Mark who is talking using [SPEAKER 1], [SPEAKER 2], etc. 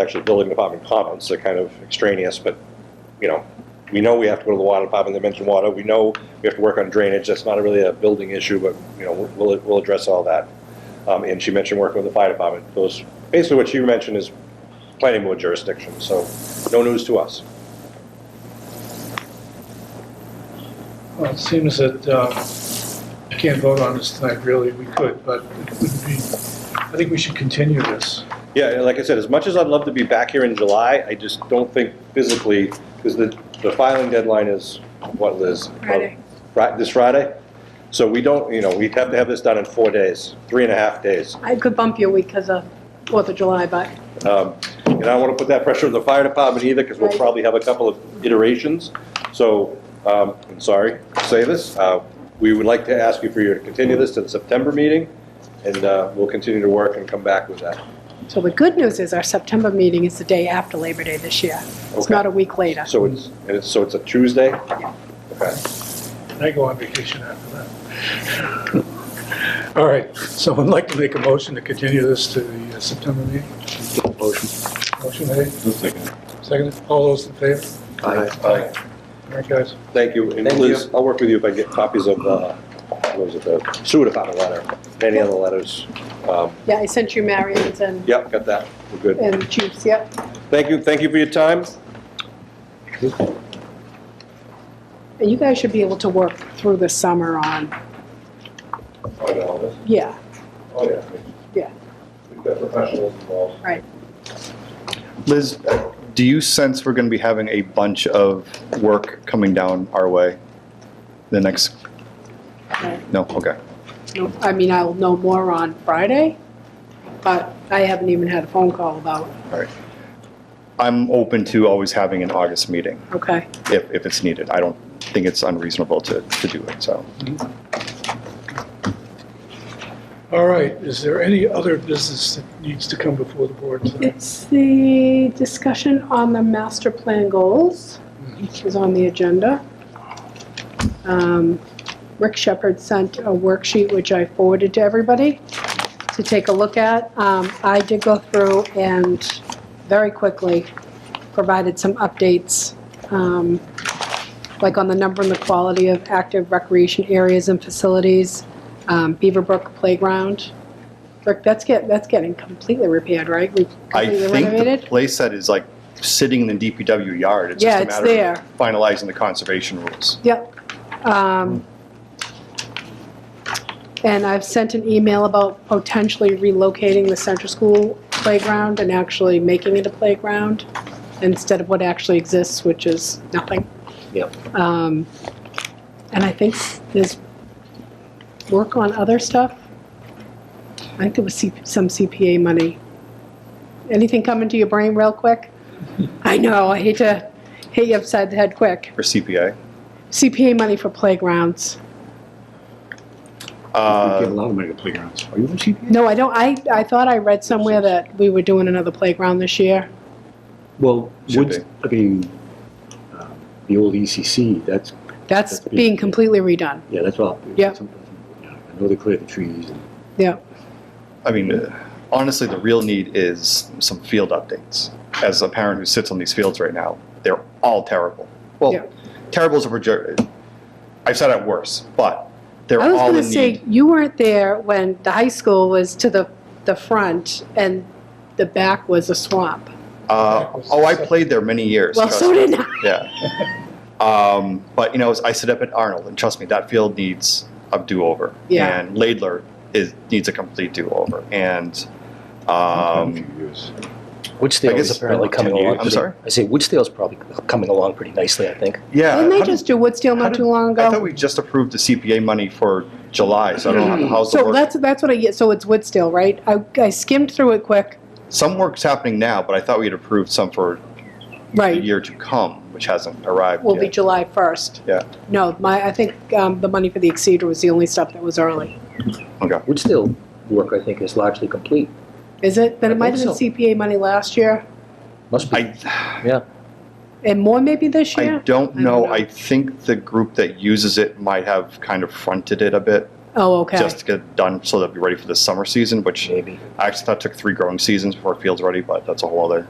[SPEAKER 1] actually building department comments, they're kind of extraneous, but, you know, we know we have to go to the water department, they mentioned water, we know we have to work on drainage, that's not really a building issue, but, you know, we'll, we'll address all that. Um, and she mentioned working with the fire department, those, basically what she mentioned is planning board jurisdiction, so no news to us.
[SPEAKER 2] Well, it seems that uh, we can't vote on this tonight, really, we could, but it would be, I think we should continue this.
[SPEAKER 1] Yeah, and like I said, as much as I'd love to be back here in July, I just don't think physically, because the, the filing deadline is, what, Liz?
[SPEAKER 3] Friday.
[SPEAKER 1] Right, this Friday? So we don't, you know, we'd have to have this done in four days, three and a half days.
[SPEAKER 3] I could bump you a week because of Fourth of July, but
[SPEAKER 1] Um, And I don't want to put that pressure on the fire department either, because we'll
[SPEAKER 3] Right.
[SPEAKER 1] probably have a couple of iterations. So, um, I'm sorry to say this, uh, we would like to ask you for you to continue this to the September meeting, and uh, we'll continue to work and come back with that.
[SPEAKER 3] so the good news is our September meeting is the day after Labor Day this year. It's
[SPEAKER 1] Okay.
[SPEAKER 3] not a week later.
[SPEAKER 1] So it's, and it's, so it's a Tuesday? Okay.
[SPEAKER 2] I go on vacation after that. All right, someone like to make a motion to continue this to the uh, September meeting? Motion. Motion made, seconded, all those in favor? Aye. All right, guys.
[SPEAKER 1] Thank you. And Liz, I'll work with you if I get copies of, uh, what was it, the sewer department letter, any other letters. Um,
[SPEAKER 3] Yeah, I sent you Marion's and,
[SPEAKER 1] Yep, got that. We're good.
[SPEAKER 3] and Chief's, yep.
[SPEAKER 1] Thank you, thank you for your time.
[SPEAKER 3] And you guys should be able to work through the summer on,
[SPEAKER 1] Oh,
[SPEAKER 3] yeah,
[SPEAKER 1] yeah.
[SPEAKER 3] Yeah.
[SPEAKER 1] We've got professionals involved.
[SPEAKER 3] right.
[SPEAKER 4] Liz, do you sense we're going to be having a bunch of work coming down our way the next?
[SPEAKER 3] right.
[SPEAKER 4] No, okay.
[SPEAKER 3] No, I mean, I'll know more on Friday, but I haven't even had a phone call about,
[SPEAKER 4] I'm open to always having an August meeting
[SPEAKER 3] okay?
[SPEAKER 4] if, if it's needed. I don't think it's unreasonable to, to do it, so.
[SPEAKER 2] All right, is there any other business that needs to come before the board tonight?
[SPEAKER 3] It's the discussion on the master plan goals, which is on the agenda. Um, Rick Shepherd sent a worksheet, which I forwarded to everybody to take a look at. Um, I did go through and very quickly provided some updates, um, like on the number and the quality of active recreation areas and facilities, um, Beaverbrook Playground. Rick, that's get, that's getting completely repaired, right? We
[SPEAKER 4] I
[SPEAKER 3] completely
[SPEAKER 4] think the
[SPEAKER 3] renovated?
[SPEAKER 4] place that is like sitting in the DPW yard, it's
[SPEAKER 3] Yeah,
[SPEAKER 4] just a
[SPEAKER 3] it's
[SPEAKER 4] matter
[SPEAKER 3] there.
[SPEAKER 4] of finalizing the conservation rules.
[SPEAKER 3] Yep. Um, And I've sent an email about potentially relocating the central school playground and actually making it a playground instead of what actually exists, which is nothing. Yep. Um, and I think there's work on other stuff. I think there was C- some CPA money. Anything coming to your brain real quick? I know, I hate to, hate you upside the head quick.
[SPEAKER 4] For CPA.
[SPEAKER 3] CPA money for playgrounds.
[SPEAKER 5] We get a
[SPEAKER 4] Uh,
[SPEAKER 5] lot of money to playgrounds. Are you a CPA?
[SPEAKER 3] No, I don't, I, I thought I read somewhere that we were doing another playground this year.
[SPEAKER 5] Well,
[SPEAKER 4] Should
[SPEAKER 5] woods, I mean, um, the old ECC, that's,
[SPEAKER 3] That's being completely redone,
[SPEAKER 5] yeah, that's all.
[SPEAKER 3] Yeah.
[SPEAKER 5] I know they clear the trees and
[SPEAKER 3] yeah.
[SPEAKER 4] I mean, uh, honestly, the real need is some field updates. As a parent who sits on these fields right now, they're all terrible. Well,
[SPEAKER 3] Yeah.
[SPEAKER 4] terrible is a proje- I've said it worse, but they're
[SPEAKER 3] I was
[SPEAKER 4] all
[SPEAKER 3] gonna
[SPEAKER 4] in
[SPEAKER 3] say,
[SPEAKER 4] need.
[SPEAKER 3] you weren't there when the high school was to the, the front and the back was a swamp.
[SPEAKER 4] Uh, oh, I played there many years.
[SPEAKER 3] Well,
[SPEAKER 4] trust
[SPEAKER 3] so
[SPEAKER 4] me.
[SPEAKER 3] did I.
[SPEAKER 4] Yeah. Um, but you know, I sit up at Arnold, and trust me, that field needs a do-over.
[SPEAKER 3] Yeah.
[SPEAKER 4] And Laidler is needs a complete do-over, and
[SPEAKER 5] a
[SPEAKER 4] um,
[SPEAKER 5] few years.
[SPEAKER 4] I
[SPEAKER 6] Woodsdale
[SPEAKER 4] guess
[SPEAKER 6] is apparently
[SPEAKER 4] about
[SPEAKER 6] coming
[SPEAKER 4] 10 years.
[SPEAKER 6] along.
[SPEAKER 4] I'm
[SPEAKER 6] pretty-
[SPEAKER 4] sorry?
[SPEAKER 6] I say Woodsdale's probably coming along pretty nicely, I think.
[SPEAKER 4] yeah.
[SPEAKER 3] Didn't they
[SPEAKER 4] how did-
[SPEAKER 3] just do Woodsteel
[SPEAKER 4] how
[SPEAKER 3] not
[SPEAKER 4] did-
[SPEAKER 3] too long
[SPEAKER 4] I thought
[SPEAKER 3] ago?
[SPEAKER 4] we just approved the CPA money for July, so I don't know how- how's the
[SPEAKER 3] So
[SPEAKER 4] work.
[SPEAKER 3] that's, that's what I, get. so it's Woodsteel, right? I, I skimmed through it quick,
[SPEAKER 4] Some work's happening now, but I thought we had approved some for the
[SPEAKER 3] right,
[SPEAKER 4] year to come, which hasn't arrived
[SPEAKER 3] will be
[SPEAKER 4] yet.
[SPEAKER 3] July first.
[SPEAKER 4] Yeah.
[SPEAKER 3] No, my, I think, um, the money for the Exceder was the only stuff that was early.
[SPEAKER 4] Okay.
[SPEAKER 6] Woodsdale work, I think, is largely complete.
[SPEAKER 3] Is it? Then it
[SPEAKER 6] I
[SPEAKER 3] might have been
[SPEAKER 6] think so.
[SPEAKER 3] CPA money last year,
[SPEAKER 6] Must be,
[SPEAKER 4] I,
[SPEAKER 6] yeah.
[SPEAKER 3] and more maybe this
[SPEAKER 4] I
[SPEAKER 3] year?
[SPEAKER 4] don't
[SPEAKER 3] I don't
[SPEAKER 4] know,
[SPEAKER 3] know.
[SPEAKER 4] I think the group that uses it might have kind of fronted it a bit,
[SPEAKER 3] Oh, okay.
[SPEAKER 4] just to get it done, so they'll be ready for the summer season, which
[SPEAKER 6] Maybe.
[SPEAKER 4] I actually thought took three growing seasons before field's ready, but that's a whole other